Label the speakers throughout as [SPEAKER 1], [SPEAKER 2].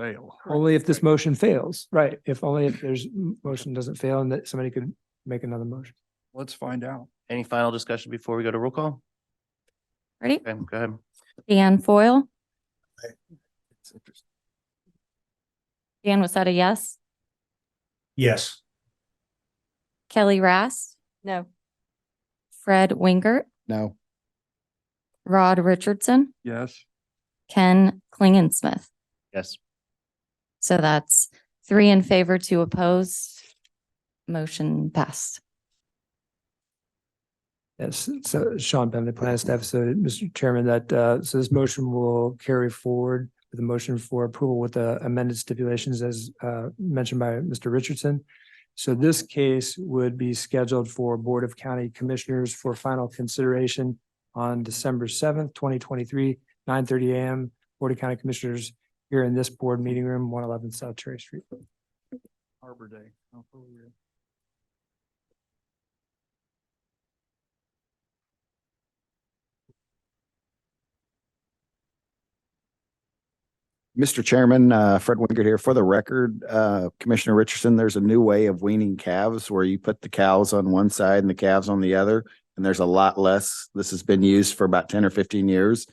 [SPEAKER 1] fail.
[SPEAKER 2] Only if this motion fails, right? If only if there's m- motion doesn't fail and that somebody could make another motion.
[SPEAKER 1] Let's find out.
[SPEAKER 3] Any final discussion before we go to roll call?
[SPEAKER 4] Ready?
[SPEAKER 3] Okay, go ahead.
[SPEAKER 4] Dan Foil.
[SPEAKER 1] It's interesting.
[SPEAKER 4] Dan was that a yes?
[SPEAKER 5] Yes.
[SPEAKER 4] Kelly Rast? No. Fred Wingert,
[SPEAKER 6] No,
[SPEAKER 4] Rod Richardson,
[SPEAKER 1] Yes,
[SPEAKER 4] Ken Klingensmith.
[SPEAKER 3] Yes.
[SPEAKER 4] So that's three in favor, two opposed. Motion passed.
[SPEAKER 2] Yes, so Sean Bentley, Plan Staff, so Mr. Chairman, that, uh, so this motion will carry forward with a motion for approval with the amended stipulations as, uh, mentioned by Mr. Richardson. So this case would be scheduled for Board of County Commissioners for final consideration on December seventh, twenty twenty-three, nine thirty AM, Board of County Commissioners here in this board meeting room, one eleven South Cherry Street.
[SPEAKER 1] Arbor Day. Oh, cool, yeah.
[SPEAKER 6] Mr. Chairman, uh, Fred Wingert here. For the record, uh, Commissioner Richardson, there's a new way of weaning calves where you put the cows on one side and the calves on the other. And there's a lot less. This has been used for about ten or fifteen years.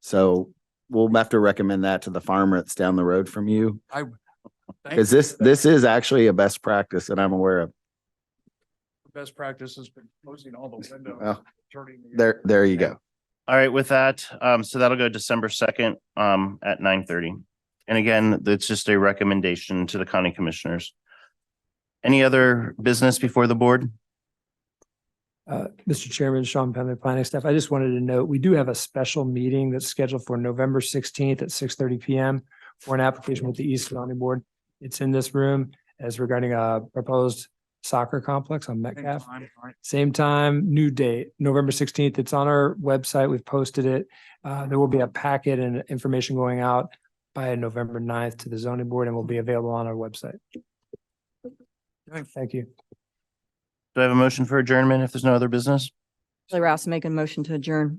[SPEAKER 6] So we'll have to recommend that to the farmer that's down the road from you.
[SPEAKER 1] I. thank
[SPEAKER 6] Cause
[SPEAKER 1] you.
[SPEAKER 6] this, this is actually a best practice that I'm aware of.
[SPEAKER 1] Best practice has been closing all the windows.
[SPEAKER 6] Well,
[SPEAKER 1] turning the-
[SPEAKER 6] There, there you go.
[SPEAKER 3] All right, with that, um, so that'll go December second, um, at nine thirty. And again, that's just a recommendation to the county commissioners. Any other business before the board?
[SPEAKER 2] Uh, Mr. Chairman, Sean Penley, planning staff, I just wanted to note, we do have a special meeting that's scheduled for November sixteenth at six thirty PM for an application with the East County Board. It's in this room as regarding a proposed soccer complex on
[SPEAKER 1] Same
[SPEAKER 2] Metcalf.
[SPEAKER 1] time, right?
[SPEAKER 2] Same time, new date, November sixteenth. It's on our website. We've posted it. Uh, there will be a packet and information going out by November 9th to the zoning board and will be available on our website. Thank you.
[SPEAKER 3] Do I have a motion for adjournment if there's no other business?
[SPEAKER 7] Charlie Rouse making a motion to adjourn.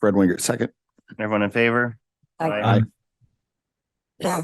[SPEAKER 6] Fred Wingert, second.
[SPEAKER 3] Everyone in favor?
[SPEAKER 7] Aye.
[SPEAKER 6] Aye.